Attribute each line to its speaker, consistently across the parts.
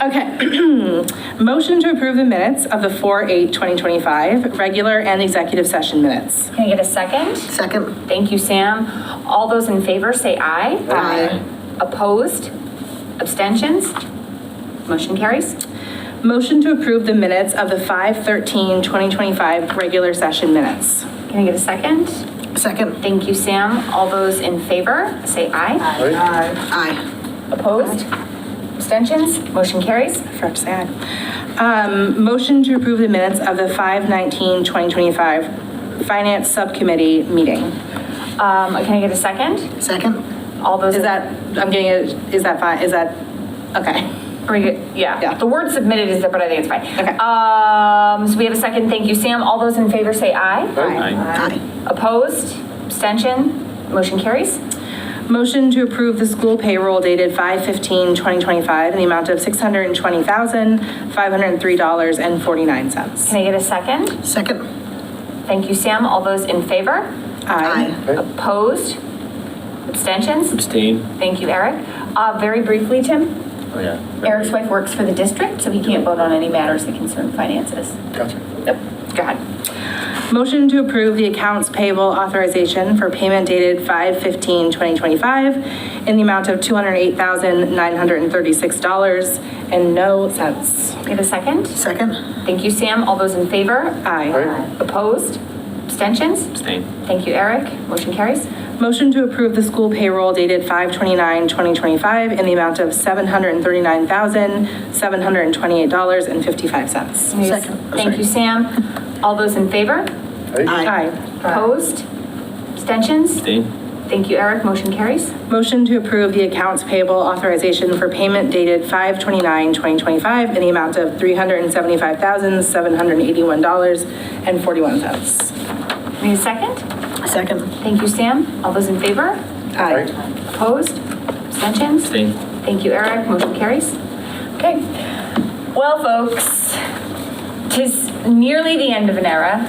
Speaker 1: Okay. Motion to approve the minutes of the 4/8/2025 regular and executive session minutes.
Speaker 2: Can I get a second?
Speaker 3: Second.
Speaker 2: Thank you, Sam. All those in favor say aye.
Speaker 3: Aye.
Speaker 2: Opposed? Abstentions? Motion carries.
Speaker 1: Motion to approve the minutes of the 5/13/2025 regular session minutes.
Speaker 2: Can I get a second?
Speaker 3: Second.
Speaker 2: Thank you, Sam. All those in favor say aye.
Speaker 3: Aye.
Speaker 2: Opposed? Abstentions? Motion carries.
Speaker 1: Correct, say aye. Um, Motion to approve the minutes of the 5/19/2025 Finance Subcommittee meeting.
Speaker 2: Um, Can I get a second?
Speaker 3: Second.
Speaker 2: All those.
Speaker 1: Is
Speaker 2: in-
Speaker 1: that, I'm getting it, is that fine, is that, okay.
Speaker 2: Are we good?
Speaker 1: Yeah.
Speaker 2: Yeah, the word submitted is, there, but I think it's fine.
Speaker 1: Okay.
Speaker 2: Um, so we have a second, thank you, Sam. All those in favor say aye.
Speaker 4: Aye.
Speaker 3: Aye.
Speaker 2: Opposed? Abstention? Motion carries.
Speaker 1: Motion to approve the school payroll dated 5/15/2025 in the amount of $620,503.49.
Speaker 2: Can I get a second?
Speaker 3: Second.
Speaker 2: Thank you, Sam. All those in favor?
Speaker 1: Aye.
Speaker 2: Opposed? Abstentions?
Speaker 4: Abstain?
Speaker 2: Thank you, Eric. Uh, very briefly, Tim,
Speaker 4: Oh, yeah.
Speaker 2: Eric's wife works for the district, so he can't vote on any matters that concern finances.
Speaker 4: Gotcha.
Speaker 2: Yep, go ahead.
Speaker 1: Motion to approve the accounts payable authorization for payment dated 5/15/2025 in the amount of $208,936 and no cents.
Speaker 2: Get a second?
Speaker 3: Second.
Speaker 2: Thank you, Sam. All those in favor?
Speaker 1: Aye.
Speaker 2: Opposed? Abstentions?
Speaker 4: Abstain?
Speaker 2: Thank you, Eric. Motion carries.
Speaker 1: Motion to approve the school payroll dated 5/29/2025 in the amount of $739,728.55.
Speaker 3: Second.
Speaker 2: Thank you, Sam. All those in favor?
Speaker 3: Aye.
Speaker 1: Aye.
Speaker 2: Opposed? Abstentions?
Speaker 4: Abstain?
Speaker 2: Thank you, Eric. Motion carries.
Speaker 1: Motion to approve the accounts payable authorization for payment dated 5/29/2025 in the amount of $375,781.41.
Speaker 2: Need a second?
Speaker 3: Second.
Speaker 2: Thank you, Sam. All those in favor?
Speaker 1: Aye.
Speaker 2: Opposed? Abstentions?
Speaker 4: Abstain?
Speaker 2: Thank you, Eric. Motion carries. Okay. Well, folks, tis nearly the end of an era.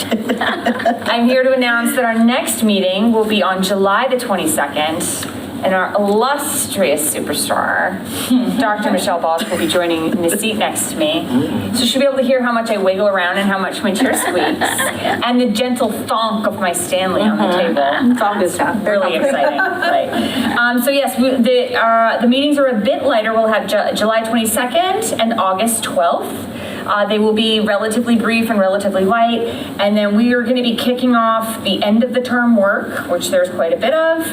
Speaker 2: I'm here to announce that our next meeting will be on July the 22nd, and our illustrious superstar, Dr. Michelle Balls, will be joining in the seat next to me.
Speaker 1: Mm.
Speaker 2: So she'll be able to hear how much I wiggle around and how much my chair squeaks, and the gentle thonk of my Stanley on the table
Speaker 1: Mm-hmm. It's all good stuff.
Speaker 2: really exciting. right. Um, so yes, we, the uh, the meetings are a bit lighter. We'll have Ju- July 22nd and August 12th. Uh, they will be relatively brief and relatively light, and then we are going to be kicking off the end of the term work, which there's quite a bit of,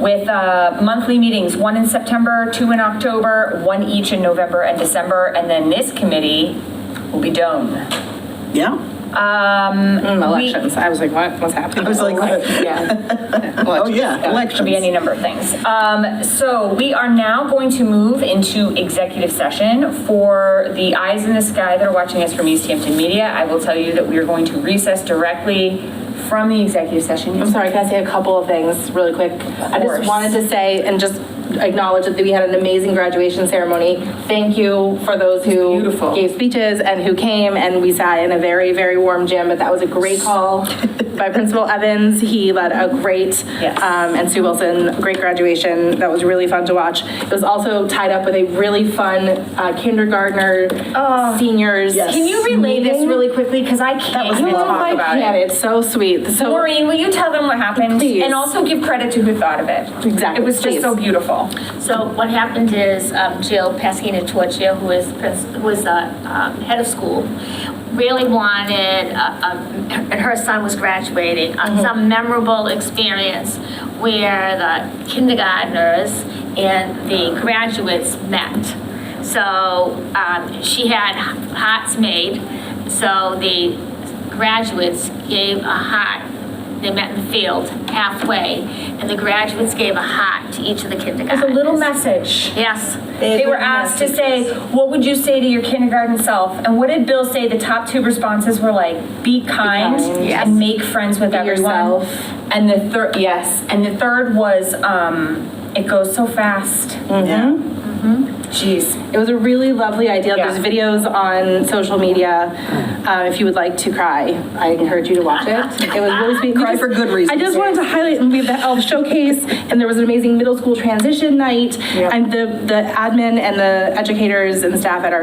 Speaker 2: with uh, monthly meetings: one in September, two in October, one each in November and December, and then this committee will be done. Uh,
Speaker 3: Yeah.
Speaker 1: Mm, Elections. I was like, what? What's happening?
Speaker 3: I was like,
Speaker 1: Yeah.
Speaker 3: oh, yeah,
Speaker 2: Could be any
Speaker 3: elections.
Speaker 2: number of things. Um, so we are now going to move into executive session. For the eyes in the sky that are watching us from East Hampton Media, I will tell you that we are going to recess directly from the executive session.
Speaker 1: I'm sorry, can I say a couple of things really quick? I just
Speaker 2: course.
Speaker 1: wanted to say and just acknowledge that we had an amazing graduation ceremony. Thank you for those who
Speaker 2: Beautiful.
Speaker 1: gave speeches and who came, and we sat in a very, very warm gym, but that was a great call by Principal Evans. He led a great,
Speaker 2: Yes.
Speaker 1: um, and Sue Wilson, great graduation. That was really fun to watch. It was also tied up with a really fun uh, kindergartner, seniors.
Speaker 3: Yes.
Speaker 2: Oh. Can you relay this really quickly? Because I can't
Speaker 1: I
Speaker 2: even
Speaker 1: love
Speaker 2: talk
Speaker 1: my
Speaker 2: about
Speaker 1: planet.
Speaker 2: it.
Speaker 1: It's so sweet. So
Speaker 2: Maureen, will you tell them what happened?
Speaker 1: Please.
Speaker 2: And also give credit to who thought of it.
Speaker 1: Exactly,
Speaker 2: It was just
Speaker 1: please.
Speaker 2: so beautiful.
Speaker 5: So what happened is um, Jill Pasquina Torchia, who is, prin- who is the um, head of school, really wanted, uh, um, and her son was graduating, uh, some memorable experience where the kindergarteners and the graduates met. So um, she had hearts made, so the graduates gave a heart. They met in the field halfway, and the graduates gave a heart to each of the
Speaker 2: There's
Speaker 5: kindergartners.
Speaker 2: a little message.
Speaker 5: Yes.
Speaker 2: They were asked to say, what would you say to your kindergarten self? And what did Bill say the top two responses were like? Be kind
Speaker 1: kind, yes.
Speaker 2: and make friends with everyone.
Speaker 1: yourself.
Speaker 2: And the third, yes, and the third was, um, it goes so fast.
Speaker 3: Yeah.
Speaker 2: Jeez.
Speaker 1: It was a really lovely idea.
Speaker 2: Yeah.
Speaker 1: There's videos on social media. Uh, if you would like to cry, I encourage you to watch it. It was really sweet.
Speaker 3: Cry for good
Speaker 1: I
Speaker 3: reasons.
Speaker 1: just wanted to highlight and leave the elf showcase, and there was an amazing middle school transition night, and the the admin and the educators and the staff at our